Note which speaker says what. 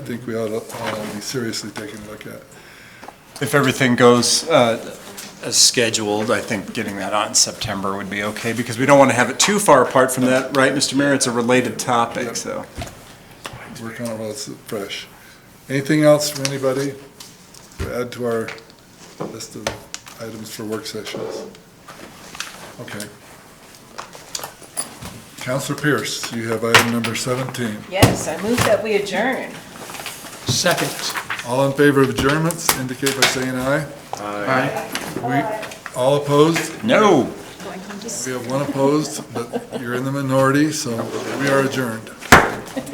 Speaker 1: think we ought to uh, be seriously taking a look at.
Speaker 2: If everything goes uh, as scheduled, I think getting that out in September would be okay, because we don't want to have it too far apart from that, right, Mr. Mayor? It's a related topic, so.
Speaker 1: We're kind of all s- fresh. Anything else from anybody to add to our list of items for work sessions? Okay. Counselor Pierce, you have item number 17.
Speaker 3: Yes, I move that we adjourn.
Speaker 4: Second.
Speaker 1: All in favor of adjournments, indicate by saying aye. We, all opposed?
Speaker 2: No.
Speaker 1: We have one opposed, but you're in the minority, so we are adjourned.